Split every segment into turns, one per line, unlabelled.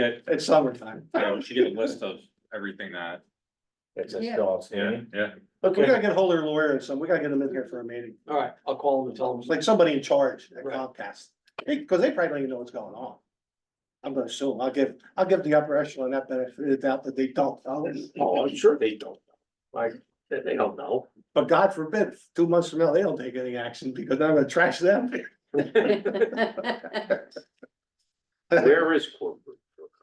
get,
It's summertime.
you know, we should get a list of everything that,
It's a
Yeah.
still
yeah,
outstanding.
yeah.
We gotta get hold of their lawyer and some, we gotta get them in here for a meeting,
All right, I'll call them and tell them.
like somebody in charge at
Right.
Comcast, because they probably don't even know what's going on. I'm gonna assume, I'll give, I'll give the upper echelon that benefit of the doubt that they don't, know.
Oh, I'm sure they don't. know. Like, they, they don't know.
but God forbid, two months from now, they don't take any action because I'm gonna trash them.
Where is corporate?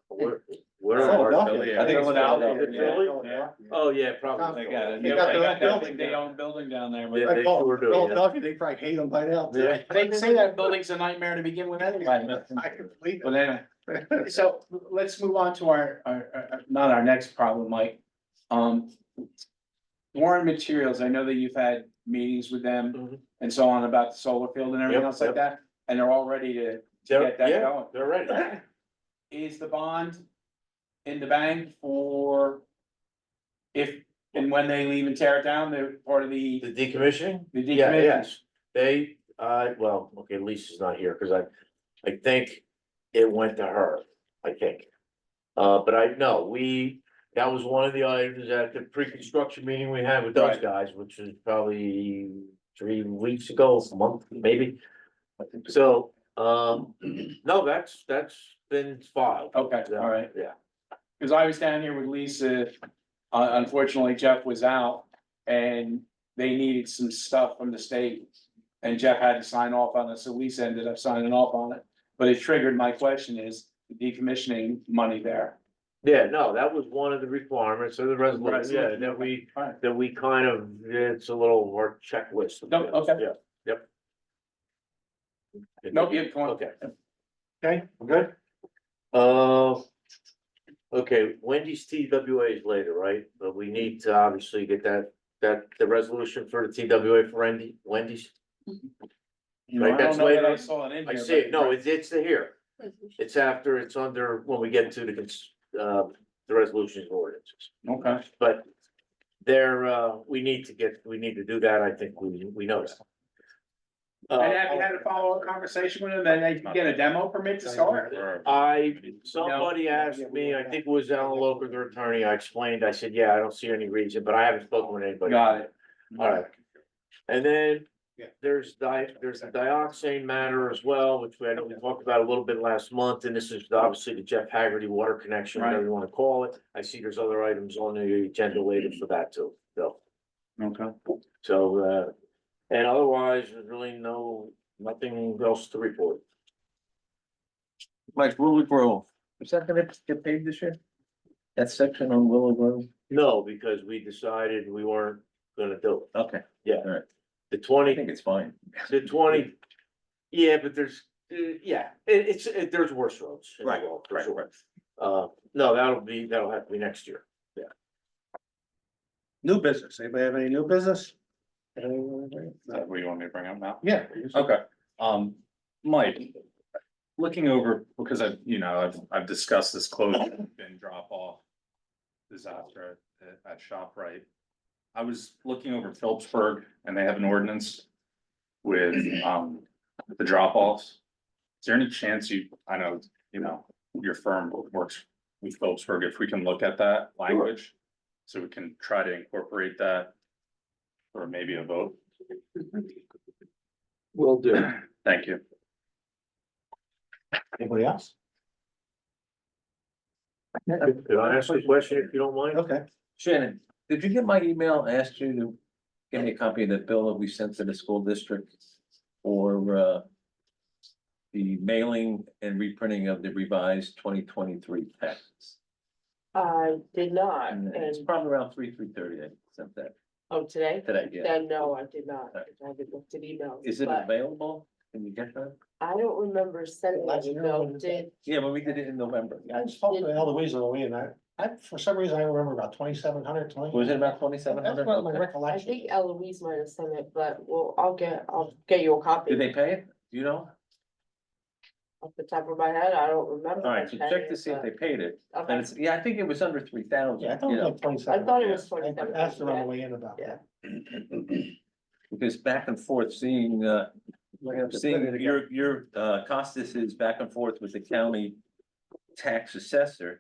Where, where
Oh,
are?
Philadelphia.
Philly, I
think it's
Philadelphia,
Philadelphia.
Oh, yeah,
Oh, yeah, probably.
They got it.
They got their own building
They
down.
own building down there.
Yeah,
with-
they sure do, yeah.
Philadelphia, they probably hate them by now.
Yeah.
They say that building's a nightmare to begin with anyway.
I can believe
But
it.
anyway, so let's move on to our, our, our- not our next problem, Mike. Um. Warren Materials, I know that you've had meetings with them
Mhm.
and so on about the solar field and everything
Yep,
else like
yep.
that, and they're all ready to
They're-
get that
yeah,
going.
They're ready.
Is the bond in the bank for? If and when they leave and tear it down, they're part of the,
The decommissioning?
the
Yeah,
decommission?
yes. They, uh, well, okay, Lisa's not here, cause I, I think it went to her, I think. Uh, but I know, we, that was one of the items at the pre-construction meeting we had with those
Right.
guys, which was probably three weeks ago, a month, maybe. So, um, no, that's, that's been filed.
Okay, all right.
Yeah,
Cause I was down here with Lisa, uh, unfortunately Jeff was out and they needed some stuff from the state. And Jeff had to sign off on it, so Lisa ended up signing off on it, but it triggered my question is the decommissioning money there.
yeah, no, that was one of the requirements of the resolution, yeah,
Resolution,
that we,
All right,
that we kind of, it's a little work checklist.
No, okay.
Yeah, yep.
Nope, yeah, come on.
Okay,
Okay, we're good.
uh, okay, Wendy's TWA is later, right? But we need to obviously get that, that, the resolution for the TWA for Wendy, Wendy's.
You know,
Right,
I don't
that's
know that I
later.
saw it in
I
here,
see, it.
but-
no, it's, it's here. It's after, it's under, when we get to the, cons- uh, the resolutions and ordinances.
Okay,
But there, uh, we need to get, we need to do that. I think we, we know that. Uh,
and have you had a follow-up conversation with them, and they can get a demo permit to start?
Or-
I, somebody asked me, I think it was Alan Loker, their attorney, I explained, I said, yeah, I don't see any reason, but I haven't spoken with anybody.
Got it.
All right. And then
Yeah.
there's di, there's the dioxane matter as well, which we, I know we talked about a little bit last month, and this is obviously the Jeff Haggerty water connection, whatever you wanna call it. I see there's other items on the agenda later for that too, so,
Okay.
so, uh, and otherwise, there's really no, nothing else to report.
Mike, Willow Grove. Is that gonna get paved this year? That section on Willow Grove?
No, because we decided we weren't gonna do it.
Okay,
The
I
twenty,
think it's fine.
the twenty, yeah, but there's, uh, yeah, it, it's, it, there's worse roads. in the
Right,
world, for
right,
sure. Uh, no, that'll be, that'll have to be next year.
New business, anybody have any new business? Anyone?
Is that what you want me to bring up now?
Yeah.
Okay, um, Mike, looking over, because I've, you know, I've, I've discussed this closure bin drop off. Disaster at, at ShopRite. I was looking over Phillipsburg and they have an ordinance with, um, the drop offs. Is there any chance you, I know, you know, your firm works with Phillipsburg, if we can look at that language? So we can try to incorporate that. Or maybe a vote,
Will do.
thank you.
Anybody else?
Could I ask you a question if you don't mind?
Okay,
Shannon, did you get my email, and asked you to give me a copy of the bill that we sent to the school district? Or, uh, the mailing and reprinting of the revised twenty twenty-three taxes?
I did not,
And it's
and,
probably around three, three thirty, I sent that
oh, today,
today, yeah.
then no, I did not, I
Okay.
haven't looked at emails.
Uh, Is it
but
available? Can you get that?
I don't remember sending an
Last year when
email,
it was-
did,
Yeah, but we did it in November.
I spoke to Eloise on the way and I, I, for some reason, I remember about twenty-seven hundred, twenty.
Was it about twenty-seven
That's
hundred?
what my
I
recollection.
think Eloise might have sent it, but well, I'll get, I'll get you a copy.
Did they pay it? Do you know?
Off the top of my head, I don't remember.
All right, so check to see if they paid it. And it's, yeah, I think it was under three
Yeah, I
thousand,
thought
you
it was
know,
like twenty-seven.
I thought it was
Yeah.
27,
I asked her on
yeah.
the way in about that.
because back and forth seeing, uh,
We're gonna have to put it
seeing
again.
your, your, uh, Costas is back and forth with the county. tax assessor